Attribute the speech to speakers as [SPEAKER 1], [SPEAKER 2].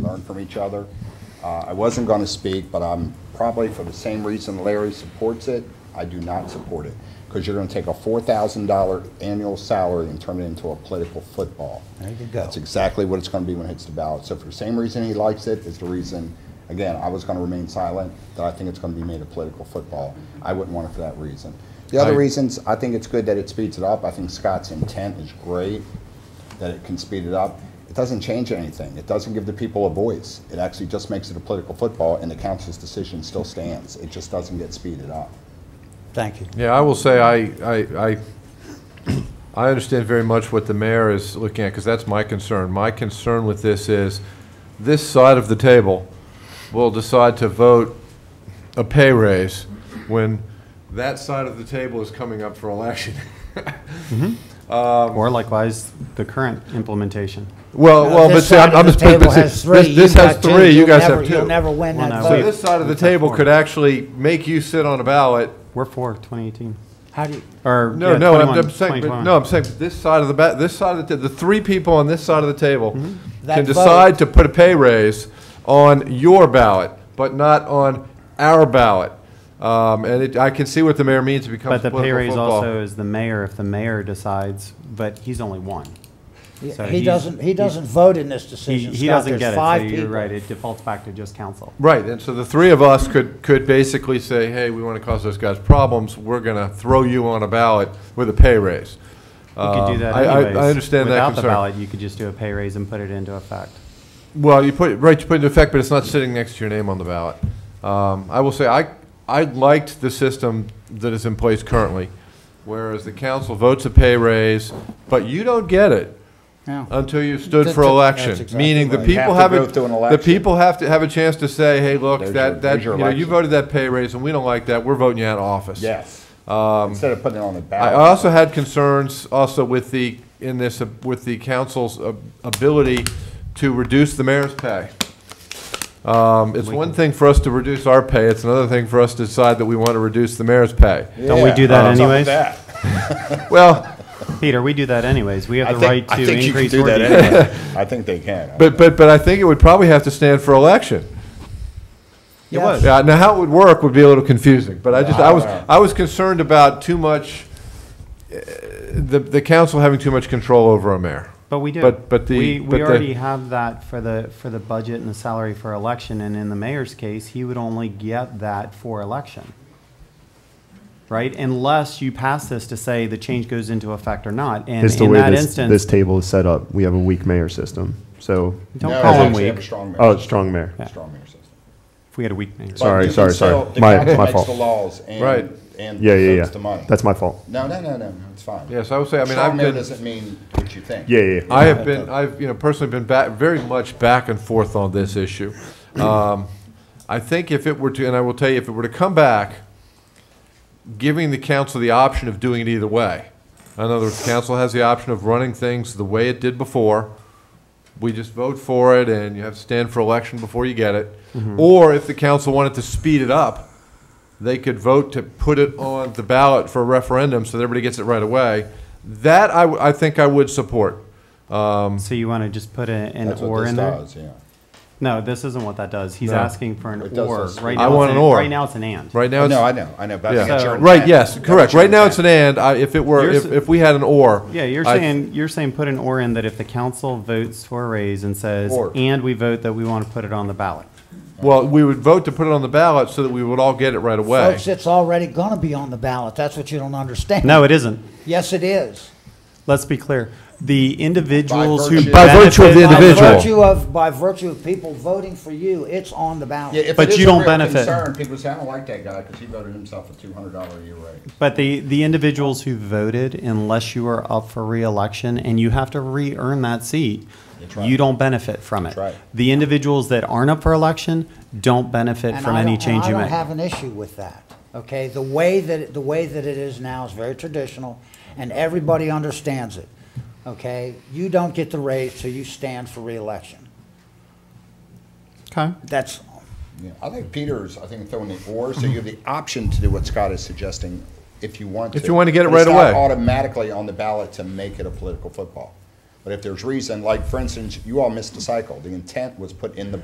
[SPEAKER 1] each other. Uh, I wasn't going to speak, but I'm probably for the same reason Larry supports it, I do not support it. Because you're going to take a $4,000 annual salary and turn it into a political football.
[SPEAKER 2] There you go.
[SPEAKER 1] That's exactly what it's going to be when it hits the ballot. So for the same reason he likes it is the reason, again, I was going to remain silent, that I think it's going to be made a political football. I wouldn't want it for that reason. The other
[SPEAKER 3] I-
[SPEAKER 1] reasons, I think it's good that it speeds it up. I think Scott's intent is great, that it can speed it up. It doesn't change anything. It doesn't give the people a voice. It actually just makes it a political football, and the council's decision still stands. It just doesn't get speeded up.
[SPEAKER 2] Thank you.
[SPEAKER 3] Yeah, I will say, I, I, I, I understand very much what the mayor is looking at, because that's my concern. My concern with this is, this side of the table will decide to vote a pay raise when that side of the table is coming up for election.
[SPEAKER 4] Or likewise, the current implementation.
[SPEAKER 3] Well, well, but
[SPEAKER 2] This
[SPEAKER 3] see, I'm
[SPEAKER 2] side of
[SPEAKER 3] I'm just.
[SPEAKER 2] the table
[SPEAKER 3] but see,
[SPEAKER 2] has three.
[SPEAKER 3] This, this
[SPEAKER 2] You've
[SPEAKER 3] has
[SPEAKER 2] got two.
[SPEAKER 3] three, you
[SPEAKER 2] You'll
[SPEAKER 3] guys
[SPEAKER 2] never-
[SPEAKER 3] have two.
[SPEAKER 2] You'll never win
[SPEAKER 4] Well,
[SPEAKER 2] that
[SPEAKER 4] now
[SPEAKER 3] So
[SPEAKER 4] we-
[SPEAKER 2] vote.
[SPEAKER 3] this side of the
[SPEAKER 4] We've got
[SPEAKER 3] table
[SPEAKER 4] four.
[SPEAKER 3] could actually make you sit on a ballot
[SPEAKER 4] We're for 2018.
[SPEAKER 2] How do you,
[SPEAKER 4] Or,
[SPEAKER 3] No,
[SPEAKER 4] yeah,
[SPEAKER 3] no, I'm,
[SPEAKER 4] 21,
[SPEAKER 3] I'm saying, but
[SPEAKER 4] 2021.
[SPEAKER 3] no, I'm saying this side of the ba- this side of the, ta- the three people on this side of the table
[SPEAKER 4] Mm-hmm.
[SPEAKER 2] That
[SPEAKER 3] can
[SPEAKER 2] vote.
[SPEAKER 3] decide to put a pay raise on your ballot, but not on our ballot. Um, and it, I can see what the mayor means. It becomes
[SPEAKER 4] But the pay
[SPEAKER 3] political
[SPEAKER 4] raise
[SPEAKER 3] football.
[SPEAKER 4] also is the mayor, if the mayor decides, but he's only one. So
[SPEAKER 2] he
[SPEAKER 4] he's-
[SPEAKER 2] doesn't, he doesn't vote in this
[SPEAKER 4] He,
[SPEAKER 2] decision,
[SPEAKER 4] he
[SPEAKER 2] Scott.
[SPEAKER 4] doesn't
[SPEAKER 2] There's
[SPEAKER 4] get it, so
[SPEAKER 2] five
[SPEAKER 4] you're
[SPEAKER 2] people.
[SPEAKER 4] right, it defaults back to just council.
[SPEAKER 3] right. And so the three of us could could basically say, hey, we want to cause those guys problems. We're going to throw you on a ballot with a pay raise. Um,
[SPEAKER 4] You could do that
[SPEAKER 3] Uh, I- I-
[SPEAKER 4] anyways.
[SPEAKER 3] I understand that
[SPEAKER 4] Without the
[SPEAKER 3] concern.
[SPEAKER 4] ballot, you could just do a pay raise and put it into effect.
[SPEAKER 3] Well, you put, right, you put it in effect, but it's not sitting next to your name on the ballot. Um, I will say, I, I liked the system that is in place currently, whereas the council votes a pay raise, but you don't get it
[SPEAKER 2] No.
[SPEAKER 4] Uh,
[SPEAKER 3] until you stood
[SPEAKER 2] That's
[SPEAKER 3] for
[SPEAKER 2] a-
[SPEAKER 3] election.
[SPEAKER 2] that's exactly
[SPEAKER 3] Meaning the
[SPEAKER 1] right. You
[SPEAKER 3] people
[SPEAKER 1] have
[SPEAKER 3] have,
[SPEAKER 1] to
[SPEAKER 3] a-
[SPEAKER 1] go through an
[SPEAKER 3] the
[SPEAKER 1] election.
[SPEAKER 3] people have to have a chance to say, hey, look,
[SPEAKER 1] There's your-
[SPEAKER 3] that, that,
[SPEAKER 1] there's
[SPEAKER 3] you
[SPEAKER 1] your
[SPEAKER 3] know, you
[SPEAKER 1] election.
[SPEAKER 3] voted that pay raise and we don't like that, we're voting you out of office.
[SPEAKER 1] Yes. Instead of putting it on the
[SPEAKER 3] I
[SPEAKER 1] ballot.
[SPEAKER 3] also had concerns also with the, in this, uh, with the council's uh, ability to reduce the mayor's pay. Um, It's one thing for us to reduce our pay, it's another thing for us to decide that we want to reduce the mayor's pay.
[SPEAKER 4] Don't we
[SPEAKER 1] Yeah.
[SPEAKER 4] do that
[SPEAKER 1] What's up with
[SPEAKER 4] anyways?
[SPEAKER 1] that?
[SPEAKER 3] Well,
[SPEAKER 4] Peter, we do that anyways, we
[SPEAKER 1] I
[SPEAKER 4] have the
[SPEAKER 1] think-
[SPEAKER 4] right
[SPEAKER 1] I
[SPEAKER 4] to
[SPEAKER 1] think you can
[SPEAKER 4] increase
[SPEAKER 1] do
[SPEAKER 4] or
[SPEAKER 1] that
[SPEAKER 4] decrease.
[SPEAKER 1] anyway. I think they can.
[SPEAKER 3] but, but, but I think it would probably have to stand for election.
[SPEAKER 2] It was.
[SPEAKER 3] Yeah, now how it would work would be a little confusing, but I just, I was, I was concerned about too much, uh, the, the council having too much control over a mayor.
[SPEAKER 4] But we do.
[SPEAKER 3] But, but the.
[SPEAKER 4] We,
[SPEAKER 3] but
[SPEAKER 4] we
[SPEAKER 3] the-
[SPEAKER 4] already have that for the, for the budget and the salary for election, and in the mayor's case, he would only get that for election. Right? Unless you pass this to say the change goes into effect or not, and
[SPEAKER 5] It's the
[SPEAKER 4] in
[SPEAKER 5] way
[SPEAKER 4] that
[SPEAKER 5] this, this
[SPEAKER 4] instance,
[SPEAKER 5] table is set up. We have a weak mayor system. So,
[SPEAKER 4] don't call him
[SPEAKER 1] Have a
[SPEAKER 4] weak.
[SPEAKER 1] strong mayor.
[SPEAKER 5] oh, strong mayor.
[SPEAKER 1] Strong mayor system.
[SPEAKER 4] If we had a weak mayor.
[SPEAKER 1] But
[SPEAKER 5] Sorry,
[SPEAKER 1] you can
[SPEAKER 5] sorry, sorry.
[SPEAKER 1] still- the
[SPEAKER 5] My-
[SPEAKER 1] council
[SPEAKER 5] my
[SPEAKER 1] makes
[SPEAKER 5] fault.
[SPEAKER 1] The laws and.
[SPEAKER 3] Right.
[SPEAKER 1] And
[SPEAKER 5] Yeah, yeah, yeah.
[SPEAKER 1] votes the money.
[SPEAKER 5] That's my fault.
[SPEAKER 1] No, no, no, no, no, it's fine.
[SPEAKER 3] Yes, I would say, I mean,
[SPEAKER 1] Strong
[SPEAKER 3] I've
[SPEAKER 1] mayor
[SPEAKER 3] been.
[SPEAKER 1] doesn't mean what you think.
[SPEAKER 5] Yeah, yeah. yeah.
[SPEAKER 3] I have been, I've, you know, personally been back, very much back and forth on this issue. Um, I think if it were to, and I will tell you, if it were to come back, giving the council the option of doing it either way. In other words, council has the option of running things the way it did before. We just vote for it and you have to stand for election before you get it. Or if the council wanted to speed it up, they could vote to put it on the ballot for a referendum so that everybody gets it right away. That I, w- I think I would support.
[SPEAKER 4] So you want to just put a- an
[SPEAKER 1] That's
[SPEAKER 4] or
[SPEAKER 1] what this
[SPEAKER 4] in there?
[SPEAKER 1] does, yeah.
[SPEAKER 4] No, this isn't what that does. He's
[SPEAKER 3] No.
[SPEAKER 4] asking for an
[SPEAKER 1] It does
[SPEAKER 4] or.
[SPEAKER 1] this.
[SPEAKER 4] Right
[SPEAKER 3] I
[SPEAKER 4] now
[SPEAKER 3] want
[SPEAKER 4] it's
[SPEAKER 3] an or.
[SPEAKER 4] Right now, it's an and.
[SPEAKER 3] Right now,
[SPEAKER 1] Oh, No, I
[SPEAKER 3] it's,
[SPEAKER 1] know, I know, but I think it's your
[SPEAKER 3] yeah,
[SPEAKER 1] intent.
[SPEAKER 3] right, yes,
[SPEAKER 1] That was
[SPEAKER 3] correct.
[SPEAKER 1] your
[SPEAKER 3] Right now,
[SPEAKER 1] intent.
[SPEAKER 3] it's an and. I, if it were,
[SPEAKER 4] You're
[SPEAKER 3] if,
[SPEAKER 4] s-
[SPEAKER 3] if we had an or.
[SPEAKER 4] Yeah, you're
[SPEAKER 3] I-
[SPEAKER 4] saying, you're saying put an or in that if the council votes for a raise and says,
[SPEAKER 1] Or.
[SPEAKER 4] and we vote that we want to put it on the ballot.
[SPEAKER 3] Well, we would vote to put it on the ballot so that we would all get it right away.
[SPEAKER 2] Folks, it's already gonna be on the ballot. That's what you don't understand.
[SPEAKER 4] No, it isn't.
[SPEAKER 2] Yes, it is.
[SPEAKER 4] Let's be clear. The individuals
[SPEAKER 1] By
[SPEAKER 4] who
[SPEAKER 1] virtue- By
[SPEAKER 3] virtue of the
[SPEAKER 4] benefit-
[SPEAKER 3] individual.
[SPEAKER 2] By virtue of, by virtue of people voting for you, it's on the
[SPEAKER 1] Yeah,
[SPEAKER 2] ballot.
[SPEAKER 1] if
[SPEAKER 4] But
[SPEAKER 1] it is a
[SPEAKER 4] you don't
[SPEAKER 1] real
[SPEAKER 4] benefit.
[SPEAKER 1] concern, People say, I don't like that guy because he voted himself a two hundred dollar a year raise.
[SPEAKER 4] But the, the individuals who voted, unless you are up for reelection and you have to re-earn that seat,
[SPEAKER 1] That's right.
[SPEAKER 4] you don't benefit from it.
[SPEAKER 1] That's right.
[SPEAKER 4] The individuals that aren't up for election don't benefit
[SPEAKER 2] And
[SPEAKER 4] from
[SPEAKER 2] I
[SPEAKER 4] any
[SPEAKER 2] don't- and
[SPEAKER 4] change you
[SPEAKER 2] I don't
[SPEAKER 4] make.
[SPEAKER 2] have an issue with that, okay? The way that, it- the way that it is now is very traditional, and everybody understands it, okay? You don't get the raise, so you stand for reelection.
[SPEAKER 4] Okay.
[SPEAKER 2] That's,
[SPEAKER 1] Yeah, I think Peter's, I think throwing the or, so you have the option to do what Scott is suggesting if you want to.
[SPEAKER 3] If you want to get it
[SPEAKER 1] But it's
[SPEAKER 3] right
[SPEAKER 1] not
[SPEAKER 3] away.
[SPEAKER 1] automatically on the ballot to make it a political football. But if there's reason, like for instance, you all missed the cycle. The intent was put in the